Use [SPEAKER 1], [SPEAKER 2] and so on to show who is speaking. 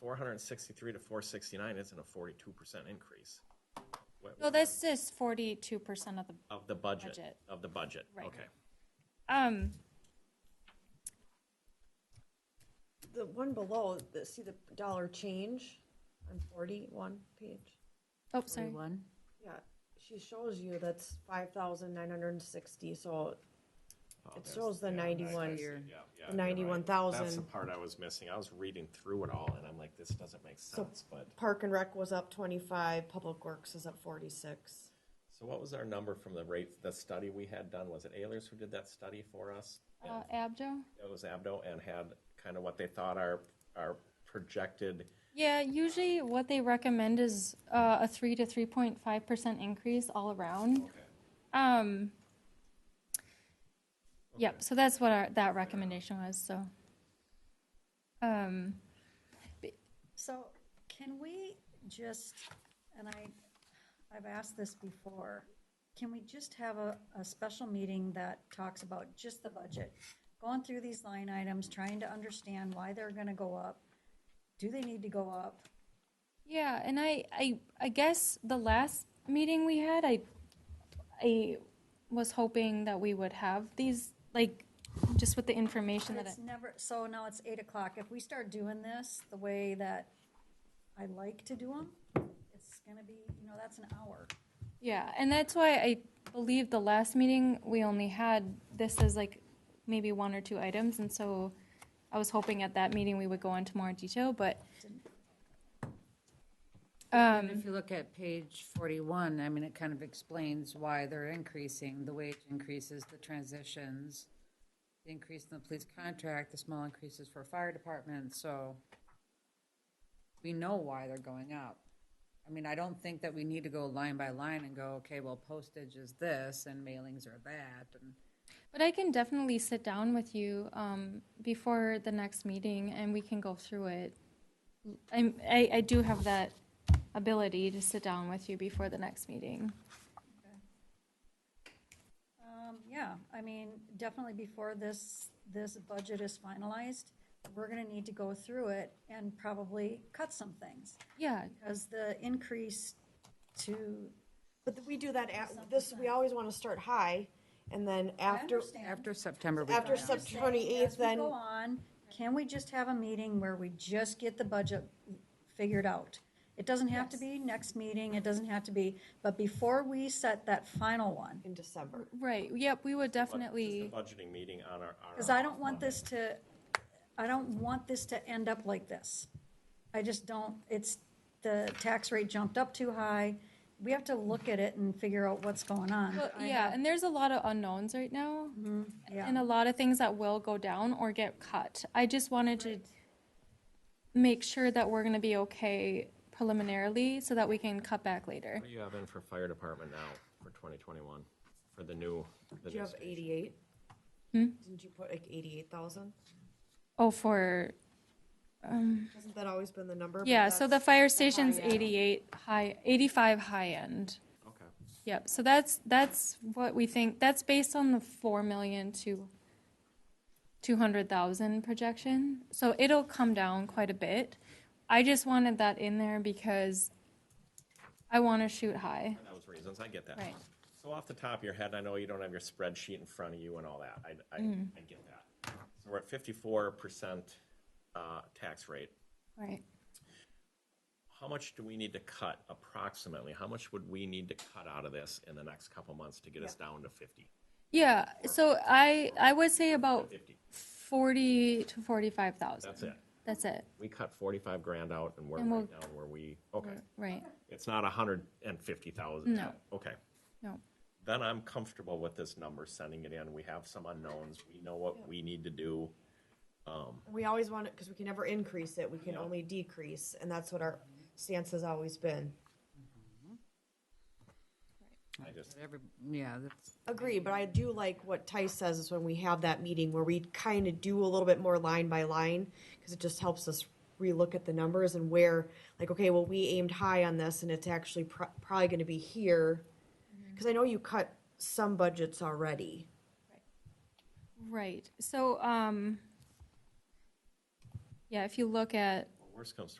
[SPEAKER 1] four hundred and sixty-three to four sixty-nine isn't a forty-two percent increase. What-
[SPEAKER 2] No, this is forty-two percent of the,
[SPEAKER 1] Of the budget,
[SPEAKER 2] Budget.
[SPEAKER 1] of the budget,
[SPEAKER 2] Right.
[SPEAKER 1] okay.
[SPEAKER 2] um,
[SPEAKER 3] The one below, the, see the dollar change on forty-one page?
[SPEAKER 2] oh, sorry.
[SPEAKER 4] Forty-one?
[SPEAKER 3] Yeah, she shows you that's five thousand nine hundred and sixty, so it shows the ninety-one,
[SPEAKER 1] Yeah, yeah, you're
[SPEAKER 3] the
[SPEAKER 1] right.
[SPEAKER 3] ninety-one
[SPEAKER 1] That's the
[SPEAKER 3] thousand.
[SPEAKER 1] part I was missing. I was reading through it all and I'm like, this doesn't make sense, but,
[SPEAKER 3] Park and Rec was up twenty-five, Public Works is up forty-six.
[SPEAKER 1] so what was our number from the rate, the study we had done? Was it Ayers who did that study for us?
[SPEAKER 2] Uh, Abjo?
[SPEAKER 1] It was Abdo and had kind of what they thought our, our projected,
[SPEAKER 2] Yeah, usually what they recommend is, uh, a three to three point five percent increase all around. Um, yep, so that's what our, that recommendation was, so. Um,
[SPEAKER 4] So can we just, and I, I've asked this before, can we just have a, a special meeting that talks about just the budget? Going through these line items, trying to understand why they're gonna go up, do they need to go up?
[SPEAKER 2] yeah, and I, I, I guess the last meeting we had, I, I was hoping that we would have these, like, just with the information that,
[SPEAKER 4] It's
[SPEAKER 2] I-
[SPEAKER 4] never, so now it's eight o'clock, if we start doing this the way that I like to do them, it's gonna be, you know, that's an hour.
[SPEAKER 2] yeah, and that's why I believe the last meeting, we only had this as like maybe one or two items, and so I was hoping at that meeting we would go into more detail, but
[SPEAKER 5] And If you look at page 41, I mean, it kind of explains why they're increasing, the wage increases, the transitions, the increase in the police contract, the small increases for fire department, so we know why they're going up. I mean, I don't think that we need to go line by line and go, okay, well, postage is this and mailings are that, and
[SPEAKER 2] But I can definitely sit down with you um, before the next meeting and we can go through it. I'm, I, I do have that ability to sit down with you before the next meeting.
[SPEAKER 4] Um, yeah, I mean, definitely before this, this budget is finalized, we're gonna need to go through it and probably cut some things.
[SPEAKER 2] Yeah,
[SPEAKER 4] Because the increase to,
[SPEAKER 3] But we do that at, this, we always wanna start high, and then after,
[SPEAKER 4] understand.
[SPEAKER 5] after September, we
[SPEAKER 3] after
[SPEAKER 5] find
[SPEAKER 3] Sep-
[SPEAKER 5] out.
[SPEAKER 4] Just saying,
[SPEAKER 3] 28th,
[SPEAKER 4] as we
[SPEAKER 3] then-
[SPEAKER 4] Go on, can we just have a meeting where we just get the budget figured out? It doesn't have to be next meeting, it doesn't have to be, but before we set that final one,
[SPEAKER 3] in December.
[SPEAKER 2] right. Yep, we would
[SPEAKER 1] what- just the
[SPEAKER 2] definitely.
[SPEAKER 1] budgeting meeting on our. our
[SPEAKER 4] Because I don't want
[SPEAKER 1] Monday.
[SPEAKER 4] this to, I don't want this to end up like this. I just don't, it's, the tax rate jumped up too high. We have to look at it and figure out what's going on.
[SPEAKER 2] Well,
[SPEAKER 4] I
[SPEAKER 2] yeah,
[SPEAKER 4] have-
[SPEAKER 2] and there's a lot of unknowns right now,
[SPEAKER 3] Mm-hmm.
[SPEAKER 2] and
[SPEAKER 4] Yeah,
[SPEAKER 2] a lot of things that will go down or get cut. I just wanted to make sure that we're going to be okay preliminarily so that we can cut back later.
[SPEAKER 1] What do you have in for fire department now for twenty twenty-one, for the new? the
[SPEAKER 3] Did you
[SPEAKER 1] new
[SPEAKER 3] have
[SPEAKER 1] station?
[SPEAKER 3] eighty-eight? Didn't you put like eighty-eight thousand?
[SPEAKER 2] Oh, for
[SPEAKER 3] Hasn't that always been the number? But
[SPEAKER 2] Yeah, so the
[SPEAKER 3] that's-
[SPEAKER 2] fire station's
[SPEAKER 3] high end.
[SPEAKER 2] 88 high, 85 high end.
[SPEAKER 1] Okay,
[SPEAKER 2] Yep, so that's, that's what we think, that's based on the 4 million to 200,000 projection. So it'll come down quite a bit. I just wanted that in there because I want to shoot high.
[SPEAKER 1] that was reasons, I get that.
[SPEAKER 2] Right.
[SPEAKER 1] So off the top of your head, I know you don't have your spreadsheet in front of you and all that, I, I,
[SPEAKER 2] Mm.
[SPEAKER 1] I get that. So we're at fifty-four percent, uh, tax rate.
[SPEAKER 2] Right.
[SPEAKER 1] How much do we need to cut approximately? How much would we need to cut out of this in the next couple months to get us down to fifty?
[SPEAKER 2] Yeah, so I, I would say about
[SPEAKER 1] Fifty,
[SPEAKER 2] 40 to 45,000.
[SPEAKER 1] that's it.
[SPEAKER 2] That's it,
[SPEAKER 1] We cut forty-five grand out and we're
[SPEAKER 2] And we'll-
[SPEAKER 1] right down where we, okay,
[SPEAKER 2] right,
[SPEAKER 1] it's not a hundred and fifty thousand.
[SPEAKER 2] No.
[SPEAKER 1] Okay.
[SPEAKER 2] no.
[SPEAKER 1] then I'm comfortable with this number, sending it in. We have some unknowns. We know what we need to do.
[SPEAKER 3] We always want it, because we can never increase it, we can only decrease, and that's what our stance has always been.
[SPEAKER 1] I just,
[SPEAKER 5] Every- Yeah, that's.
[SPEAKER 3] Agree, but I do like what Tice says is when we have that meeting where we kind of do a little bit more line by line, because it just helps us relook at the numbers and where, like, okay, well, we aimed high on this, and it's actually pro- probably going to be here. Because I know you cut some budgets already.
[SPEAKER 2] Right. So, um, yeah, if you look at
[SPEAKER 1] worst comes to